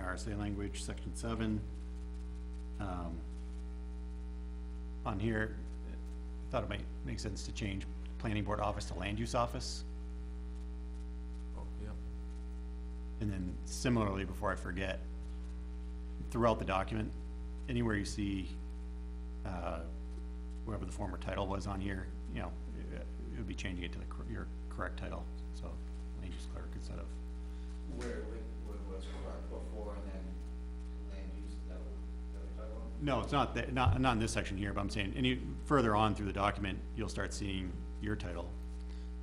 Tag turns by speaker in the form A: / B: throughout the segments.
A: RSA language, section seven. Um, On here, I thought it might make sense to change planning board office to land use office.
B: Oh, yeah.
A: And then similarly, before I forget, throughout the document, anywhere you see, uh, whatever the former title was on here, you know, it it would be changing it to the, cor- your correct title, so land use clerk instead of,
C: Where, where was correct before and then land use, is that what, that what you're talking about?
A: no, it's not, that- not, not in this section here, but I'm saying, any, further on through the document, you'll start seeing your title,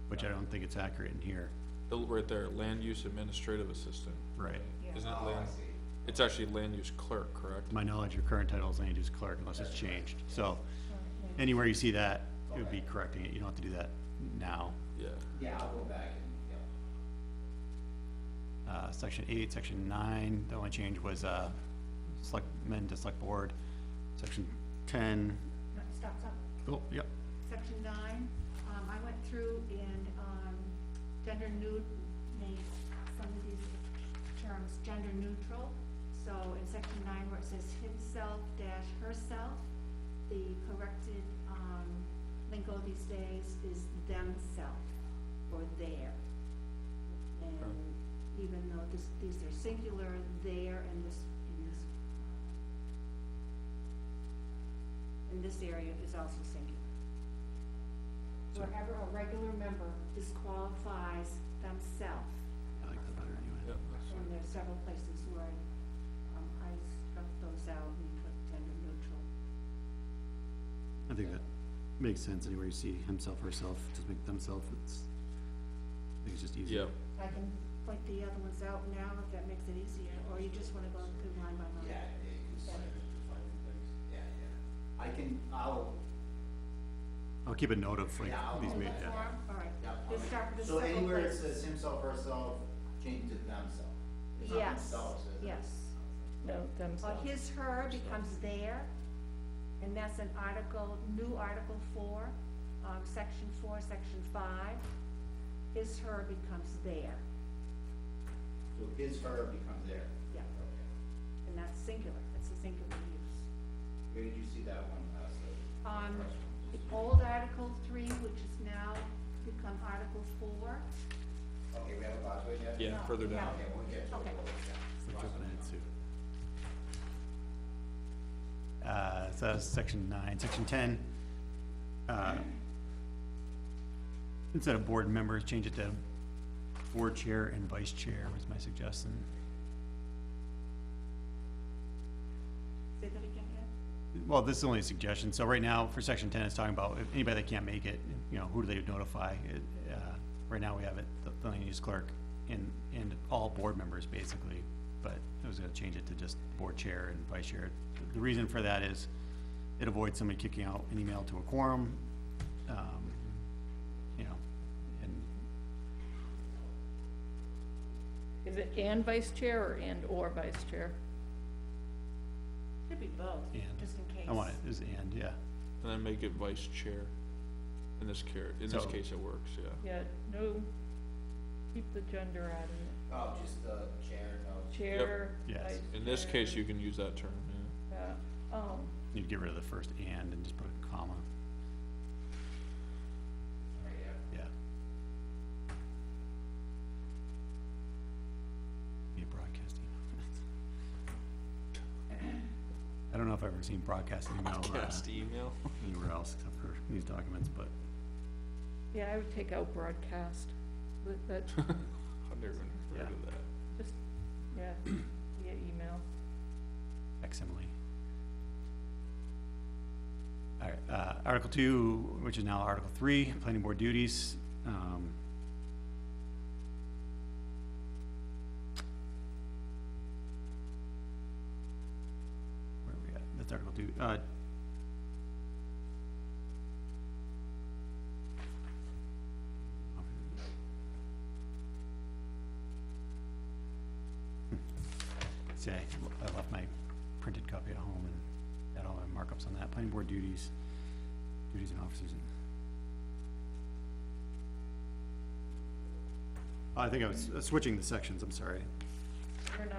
A: which I don't think it's accurate in here.
B: The- Right there, land use administrative assistant.
A: Right.
B: Isn't it
C: Oh, I
B: land,
C: see.
B: it's actually land use clerk, correct?
A: To my knowledge, your current title is land use clerk unless it's changed, so anywhere you see that, it would be correcting it, you don't have to do that now.
B: Yeah,
C: Yeah, I'll go back and, yeah.
A: uh, section eight, section nine, the only change was, uh, select, men to select board, section ten,
D: No, Stop, stop.
A: oh, yep,
D: Section nine, um, I went through and, um, gender new, made some of these terms gender neutral. So in section nine where it says himself dash herself, the corrected, um, lingo these days is themself or their. And even though this, these are singular, there in this, in this, in this area is also singular. Wherever a regular member disqualifies themselves,
A: I like that better
B: yeah,
A: anyway.
B: that's-
D: and there's several places where I, um, I struck those out and put gender neutral.
A: I think that makes sense, anywhere you see himself, herself, just make themself, it's, I think it's just easier.
B: yeah,
D: I can point the other ones out now if that makes it easier, or you just wanna go through line by line.
C: Yeah, yeah, you can start defining things. Yeah, yeah. I can, I'll,
A: I'll keep a note of like
C: Yeah, I'll-
A: these,
D: In
A: ma-
D: that
A: yeah,
D: form, Oh, all right,
C: yeah. I'll
D: just
C: make-
D: start with the
C: So
D: several
C: anywhere it
D: places.
C: says himself, herself, change to themself. It's not
D: Yes,
C: themselves, is it?
D: yes.
E: No,
D: Well,
E: themselves.
D: his, her becomes there, and that's an article, new article four, um, section four, section five. His, her becomes there,
C: So his, her becomes their.
D: yeah,
C: Okay.
D: and that's singular, that's a singular use.
C: Where did you see that one, uh, so?
D: Um, the old article three, which is now become article four,
C: Okay, we have a lot to it yet?
B: yeah, further
D: Yeah.
B: down.
C: Okay, we'll get to it.
D: Okay.
A: it's like jumping ahead too. Uh, so that's section nine, section ten, uh, instead of board members, change it to board chair and vice chair was my suggestion.
D: say that again, Ed?
A: Well, this is only a suggestion, so right now, for section ten, it's talking about if anybody that can't make it, you know, who do they notify? It, uh, Right now, we have it, the- the land use clerk and, and all board members, basically, but I was gonna change it to just board chair and vice chair. The reason for that is it avoids somebody kicking out an email to a quorum, um, you know, and
E: Is it and vice chair or and/or vice chair?
D: Could be both,
A: And.
D: just in case.
A: I want it, is and, yeah,
B: And then make it vice chair. In this care, in this
A: So-
B: case, it works, yeah.
E: Yeah, no, keep the gender out of
C: Oh, just the chair, no.
E: it. Chair,
A: Yes.
E: vice.
B: In this case,
E: chair,
B: you can use that term, yeah.
E: yeah. Um,
A: you'd get rid of the first and and just put a comma,
C: Right, yeah.
A: yeah. Be a broadcasting. I don't know if I've ever seen broadcasting email uh,
B: Cast email.
A: anywhere else except for these documents, but
E: yeah, I would take out broadcast, but, but,
B: I've never even heard of that.
E: just, yeah, via email.
A: facsimile. All right, uh, Article two, which is now Article three, planning board duties, um. Where are we at? That's Article two, uh. See, I Hmm. I left my printed copy at home and had all my markups on that, planning board duties, duties and officers. and- I think I was uh, switching the sections, I'm sorry.
E: We're not